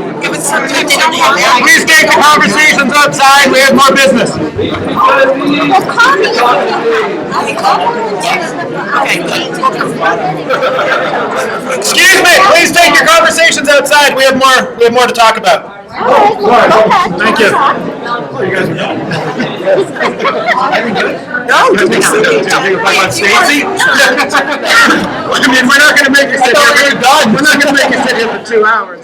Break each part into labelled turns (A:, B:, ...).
A: Sometimes they don't have that.
B: Please take the conversations outside, we have more business.
A: Well, call me. I call her and text her.
B: Excuse me, please take your conversations outside, we have more, we have more to talk about.
A: All right, well, go ahead.
B: Thank you.
A: talk.
B: No, did you sit down? Stacy? I mean, we're not gonna make you sit here, we're done, we're not gonna make you sit here for two hours.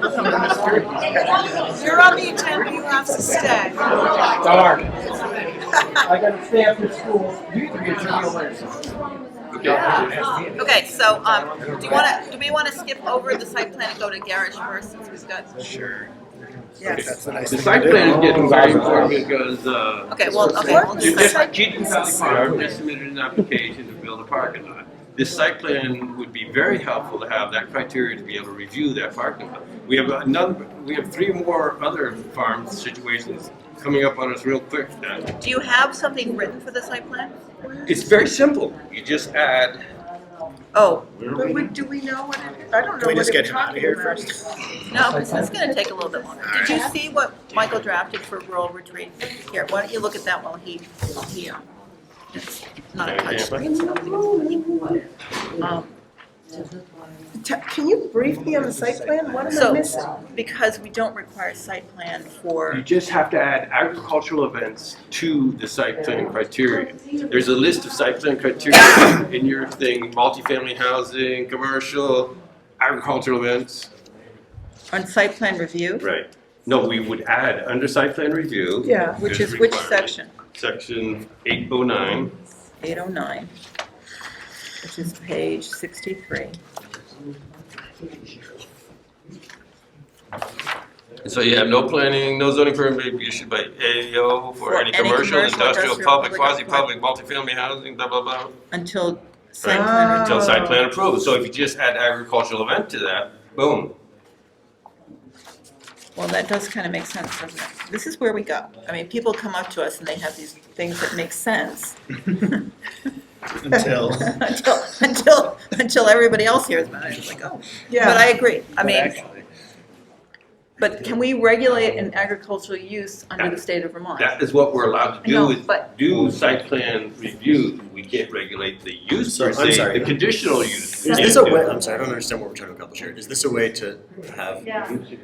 C: You're on the agenda, you have to stay.
D: Darn. I gotta stay after school. You can get your meal later.
E: Okay, so, um, do you wanna, do we wanna skip over the site plan and go to Garage first since we've got?
C: Yes.
F: The site plan is getting very important because, uh,
E: Okay, well, okay, we'll
F: you
E: just,
F: just, Keaton Valley Farm just submitted an application to build a parking lot. This site plan would be very helpful to have that criteria to be able to review that parking lot. We have another, we have three more other farm situations coming up on us real quick now.
E: do you have something written for the site plan?
F: It's very simple. You just add,
E: Oh,
C: But we, do we know what it is? I don't know
B: we
C: what
B: just
C: it's
B: get him out of
C: talking
B: here
C: about.
E: no, this is gonna take a little bit longer. Did you see what Michael drafted for rural retreat? Here, why don't you look at that while he, he, um, it's not a touchscreen. Um,
C: Ta- Can you brief me on the site plan? What am I
E: So-
C: missing?
E: Because we don't require site plan
F: you
E: for,
F: just have to add agricultural events to the site plan criteria. There's a list of site plan criteria in your thing, multifamily housing, commercial, agricultural events.
E: on site plan review,
F: Right. No, we would add under site plan review.
C: Yeah,
E: which
F: there's
E: is which
F: requirement,
E: section?
F: Section eight oh nine.
E: 809, which is page 63.
F: So you have no planning, no zoning permit may be issued by AO for any commercial, industrial, public, quasi-public, multifamily housing, blah, blah, blah.
E: Until site
F: Right.
E: plan
F: Until
E: review.
F: site plan approved. So if you just add agricultural event to that, boom.
E: Well, that does kind of make sense, doesn't it? This is where we go. I mean, people come up to us and they have these things that make sense
B: Until.
E: until, until, until everybody else hears about it. It's like, oh. But
C: Yeah,
E: I agree. I mean, but can we regulate an agricultural use under the state of Vermont?
F: That is what we're allowed to
E: I know,
F: do is
E: but-
F: do site plan review. We can't regulate the use
B: So,
F: per
B: I'm
F: se,
B: sorry.
F: the conditional use.
B: Is this a way, I'm sorry, I don't understand what we're trying to accomplish here. Is this a way to have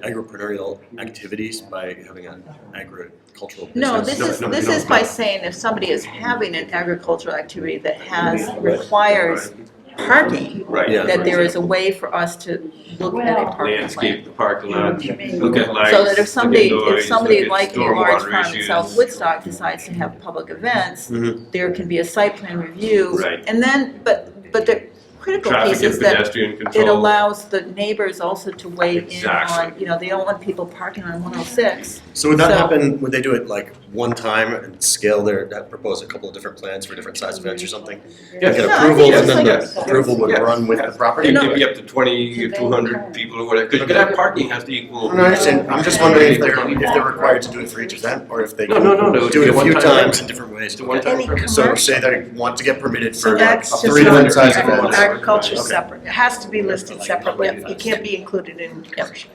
B: agripreneurial activities by having an agricultural business?
E: No, this
F: No,
E: is,
F: no,
E: this
F: no,
E: is by
F: no.
E: saying if somebody is having an agricultural activity that has, requires parking,
F: Right.
B: Yeah.
E: that there is a way for us to look at a parking plan.
F: landscape the parking lot, look at lights.
E: So that if somebody,
F: look at
E: if
F: noise,
E: somebody
F: look at
E: like a large
F: stormwater
E: farm in
F: issues.
E: South Woodstock decides to have public events,
F: Mm-hmm.
B: Mhm.
E: there can be a site plan review.
F: Right.
E: And then, but, but the critical piece
F: Traffic
E: is
F: and
E: that
F: pedestrian
E: it
F: control.
E: allows the neighbors also to weigh in on,
F: Exactly.
E: you know, they don't want people parking on one oh six.
B: So would that
E: So-
B: happen, would they do it like one time and scale their, that propose a couple of different plans for different size events or something? Like
F: Yes.
B: an
E: No, I think
B: approval
F: it's
B: and then
F: like-
B: the approval would
F: Yes.
B: run with the property?
F: It
E: No.
F: could be up to twenty, two hundred people or whatever, because you could have parking has to equal.
B: No, no, I understand. I'm just wondering if they're, if they're required to do it for each event or if they
F: No,
B: can
F: no, no, no, it would
B: do
F: be
B: it
F: a
B: a few
F: one-time event.
B: times in different ways.
F: It's a one-time
C: Any
F: permit.
B: So say they want to get permitted
C: so
B: for like
C: that's
B: a
C: just
B: three
C: not
B: event
F: different
B: size
F: sized
C: agriculture,
B: event.
F: events.
C: agriculture's
B: Okay.
C: separate, it has to be listed separately,
B: Yeah.
C: it can't be included in commercial.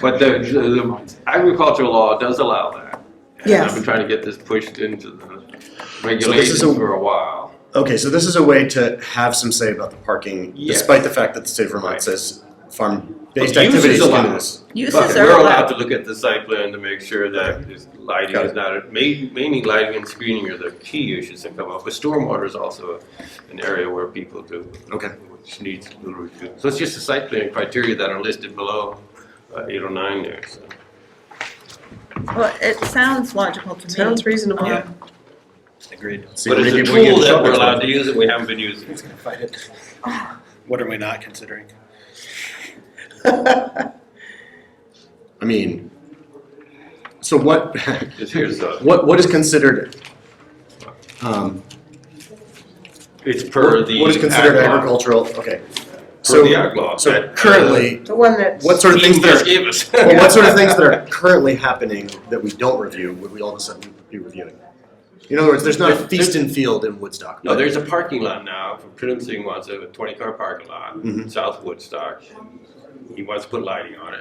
F: But the, the agricultural law does allow that. And
C: Yes.
F: I've been trying to get this pushed into the
B: is
F: regulations
B: a-
F: for a while.
B: Okay, so this is a way to have some say about the parking,
F: Yes.
B: despite the fact that the state of Vermont
F: Right.
B: says farm-based
F: But use is
B: activities can do
F: allowed.
B: this.
E: Uses
F: But
E: are
F: we're allowed
E: allowed.
F: to look at the site plan to make sure that this lighting
B: Got
F: is not, main- mainly lighting and screening are the key issues that come up. But stormwater is also an area where people do.
B: Okay.
F: Which needs a little review. So it's just the site plan criteria that are listed below uh, 809 there, so.
E: Well, it sounds logical to me.
C: Sounds reasonable.
E: Um,
G: Agreed.
B: So
F: But
B: maybe
F: it's a
B: we can
F: tool that
B: shop
F: we're
B: it.
F: allowed to use that we haven't been using.
G: He's gonna fight it. What are we not considering?
B: I mean, so what,
F: Just here's a,
B: what, what is considered, um,
F: it's per the.
B: what is considered
F: ag law.
B: agricultural, okay.
F: Per
B: So,
F: the ag law.
B: so
F: that, uh,
B: currently,
C: The one that's.
B: what sort of things
F: Dean just
B: that are,
F: gave us.
B: well, what sort of things that are currently happening that we don't review, would we all of a sudden be reviewing? In other words, there's not a
F: There's-
B: feast and field in Woodstock.
F: No, there's a parking lot now, for Prudence Singh wants a twenty-car parking lot,
B: Mhm.
F: South Woodstock. He wants to put lighting on it.